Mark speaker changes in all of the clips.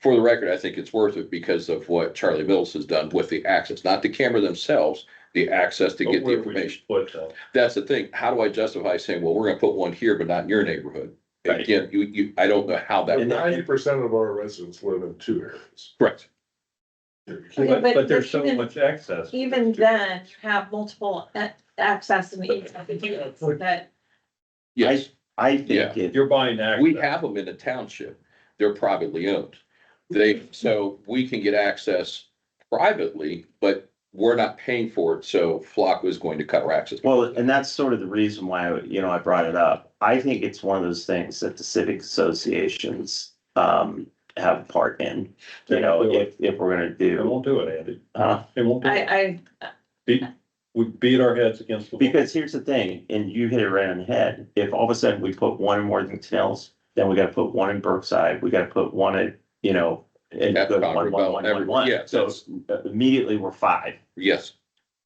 Speaker 1: for the record, I think it's worth it because of what Charlie Mills has done with the access, not the camera themselves, the access to get the
Speaker 2: Where would you
Speaker 1: information.
Speaker 2: Put uh, that.
Speaker 1: That's the thing. How do I justify saying, well, we're gonna put one here, but not in your neighborhood?
Speaker 2: Right.
Speaker 1: Again, you, you, I don't know how that,
Speaker 2: And that-
Speaker 3: Ninety percent of our residents live in two areas.
Speaker 1: correct.
Speaker 4: Okay,
Speaker 2: But,
Speaker 4: but-
Speaker 2: but there's
Speaker 4: but
Speaker 2: so
Speaker 4: even-
Speaker 2: much access.
Speaker 4: Even then, you have multiple a- access and egress units that,
Speaker 1: Yes,
Speaker 5: I
Speaker 1: Yeah.
Speaker 5: think it,
Speaker 2: You're buying access.
Speaker 1: we have them in the township. They're privately owned. They, so we can get access privately, but we're not paying for it, so Flock was going to cut our access.
Speaker 5: well, and that's sort of the reason why, you know, I brought it up. I think it's one of those things that the civic associations um have a part in. You know, if if we're gonna
Speaker 2: They
Speaker 5: do,
Speaker 2: won't do it, Andy.
Speaker 5: uh,
Speaker 2: They won't do it.
Speaker 4: I,
Speaker 2: Beat, we beat our heads against the. wall.
Speaker 5: because here's the thing, and you hit it right on the head. If all of a sudden we put one in Worthington Hills, then we gotta put one in Brookside, we gotta put one in, you know, and
Speaker 1: At
Speaker 5: go
Speaker 1: Concord
Speaker 5: one,
Speaker 1: Bell,
Speaker 5: one, one, one,
Speaker 1: every-
Speaker 5: one.
Speaker 1: yeah,
Speaker 5: So immediately we're five.
Speaker 1: Yes,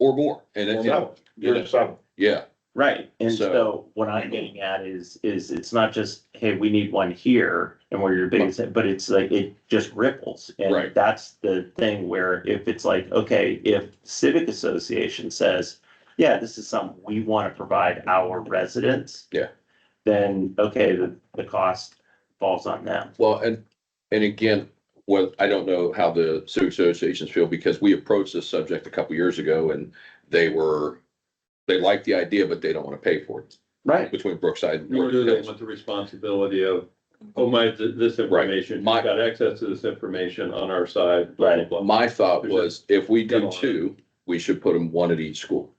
Speaker 1: or more. And
Speaker 2: Or
Speaker 1: it's,
Speaker 2: no.
Speaker 3: You're some,
Speaker 1: yeah,
Speaker 5: Right, and
Speaker 1: So-
Speaker 5: so what I'm getting at is, is it's not just, hey, we need one here and we're your biggest, but it's like, it just ripples.
Speaker 1: Right.
Speaker 5: And that's the thing where if it's like, okay, if civic association says, yeah, this is something we want to provide our residents.
Speaker 1: Yeah.
Speaker 5: Then, okay, the, the cost falls on them.
Speaker 1: well, and, and again, what, I don't know how the civic associations feel because we approached this subject a couple years ago and they were, they liked the idea, but they don't want to pay for it
Speaker 5: Right.
Speaker 1: between Brookside and
Speaker 2: Nor do they
Speaker 1: Northfield.
Speaker 2: want the responsibility of, oh my, th- this information, you've
Speaker 1: My-
Speaker 2: got access to this information on our side.
Speaker 5: Right.
Speaker 2: blah, blah,
Speaker 1: My thought was if we
Speaker 2: There's a-
Speaker 1: do two, we should put them one at each school.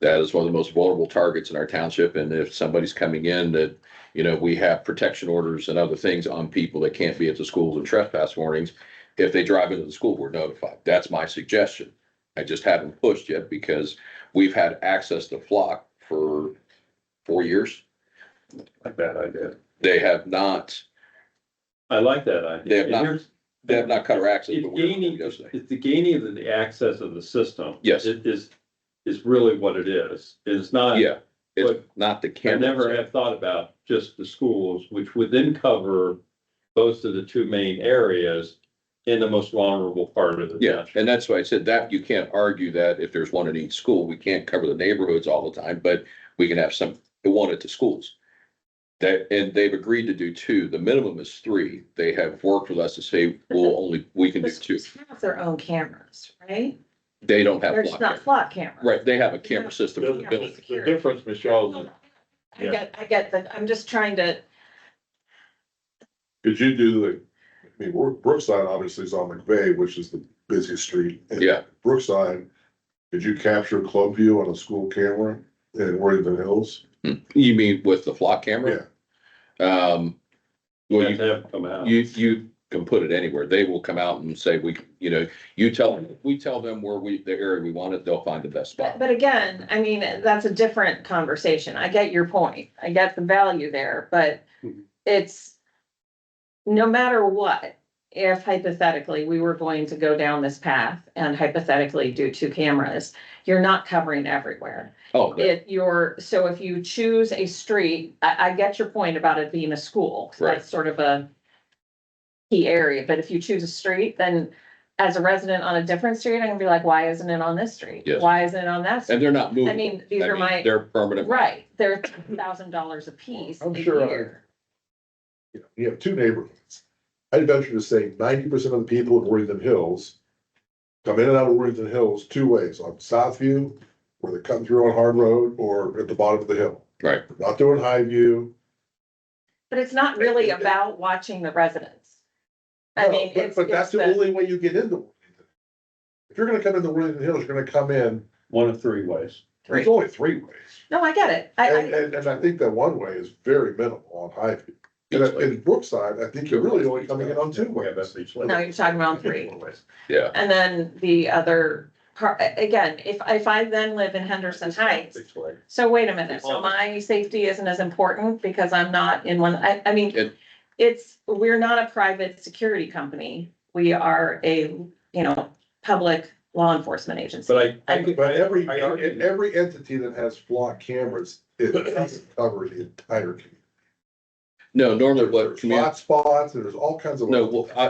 Speaker 1: That is one of the most vulnerable targets in our township. And if somebody's coming in that, you know, we have protection orders and other things on people that can't be at the schools and trespass warnings. If they drive into the school, we're notified. That's my suggestion. I just haven't pushed yet because we've had access to Flock for four years.
Speaker 2: blah. Bad idea.
Speaker 1: They have not,
Speaker 2: I like that idea.
Speaker 1: They have
Speaker 2: And
Speaker 1: not-
Speaker 2: here's-
Speaker 1: they have not cut our access.
Speaker 2: It's
Speaker 1: but we're-
Speaker 2: gaining- It's the gaining of the access of the system.
Speaker 1: Yes.
Speaker 2: It is, is really what it is. It's not.
Speaker 1: Yeah, it's
Speaker 2: But
Speaker 1: not the
Speaker 2: I
Speaker 1: camera.
Speaker 2: never have thought about just the schools, which would then cover most of the two main areas in the most vulnerable part of the
Speaker 1: Yeah,
Speaker 2: township.
Speaker 1: and that's why I said that you can't argue that if there's one in each school, we can't cover the neighborhoods all the time, but we can have some, one at the schools. That, and they've agreed to do two. The minimum is three. They have worked with us to say, we'll only, we
Speaker 4: I,
Speaker 1: can
Speaker 4: the
Speaker 1: do two.
Speaker 4: schools have their own cameras, right?
Speaker 1: They don't have.
Speaker 4: They're just
Speaker 1: block
Speaker 4: not flock cameras.
Speaker 1: Right, they have a camera system in the building.
Speaker 3: the difference, Michelle, is
Speaker 4: I get, I get that, I'm just trying to,
Speaker 3: Could you do the, I mean, Brook- Brookside obviously is on McVeigh, which is the busiest street. in
Speaker 1: Yeah.
Speaker 3: Brookside, could you capture club view on a school camera in Worthington Hills?
Speaker 1: You mean with the flock camera? Yeah. Um, well,
Speaker 2: You
Speaker 1: you,
Speaker 2: have to come out.
Speaker 1: you, you can put it anywhere. They will come out and say, we, you know, you tell, we tell them where we, the area we want it, they'll find the best spot.
Speaker 4: but, but again, I mean, that's a different conversation. I get your point. I get the value there, but
Speaker 2: Mhm.
Speaker 4: it's no matter what, if hypothetically we were going to go down this path and hypothetically do two cameras, you're not covering everywhere.
Speaker 1: Oh, that-
Speaker 4: If you're, so if you choose a street, I, I get your point about it being a school. 'cause
Speaker 1: Right.
Speaker 4: That's sort of a key area, but if you choose a street, then as a resident on a different street, I can be like, why isn't it on this street?
Speaker 1: Yes.
Speaker 4: Why isn't it on that?
Speaker 1: And
Speaker 4: street?
Speaker 1: they're not
Speaker 4: I
Speaker 1: moving.
Speaker 4: mean, these are my,
Speaker 1: They're permanent.
Speaker 4: right, they're thousand dollars a piece a
Speaker 3: I'm sure I-
Speaker 4: year.
Speaker 3: You know, you have two neighborhoods. I'd venture to say ninety percent of the people in Worthington Hills come in and out of Worthington Hills two ways, on Southview, where they come through on Hard Road, or at the bottom of the hill.
Speaker 1: Right.
Speaker 3: Not doing High View.
Speaker 4: But it's not really about watching the residents. I
Speaker 3: No,
Speaker 4: mean,
Speaker 3: but-
Speaker 4: it's,
Speaker 3: But
Speaker 4: it's
Speaker 3: that's the
Speaker 4: the,
Speaker 3: only way you get into Worthington. If you're gonna come into Worthington Hills, you're gonna come in,
Speaker 2: One of three ways.
Speaker 3: there's only three ways.
Speaker 4: no, I get it. I,
Speaker 3: And,
Speaker 4: I,
Speaker 3: and, and I think that one way is very minimal on Highview. And
Speaker 1: It's
Speaker 3: at-
Speaker 1: like-
Speaker 3: in Brookside, I think you're really only coming in on two
Speaker 2: Yeah,
Speaker 3: ways.
Speaker 2: that's each way.
Speaker 4: no, you're talking about three.
Speaker 1: Yeah,
Speaker 4: And then the other part, again, if, if I then live in Henderson Heights,
Speaker 2: Each way.
Speaker 4: so wait a minute, so my safety isn't as important because I'm not in one, I, I mean,
Speaker 1: It-
Speaker 4: it's, we're not a private security company. We are a, you know, public law enforcement agency.
Speaker 2: But I.
Speaker 4: I-
Speaker 3: But every,
Speaker 2: I argue-
Speaker 3: every entity that has flock cameras, it doesn't cover the entire community.
Speaker 1: no, normally what,
Speaker 3: There's
Speaker 1: commu-
Speaker 3: hotspots, and there's all kinds of.
Speaker 1: no, well, I,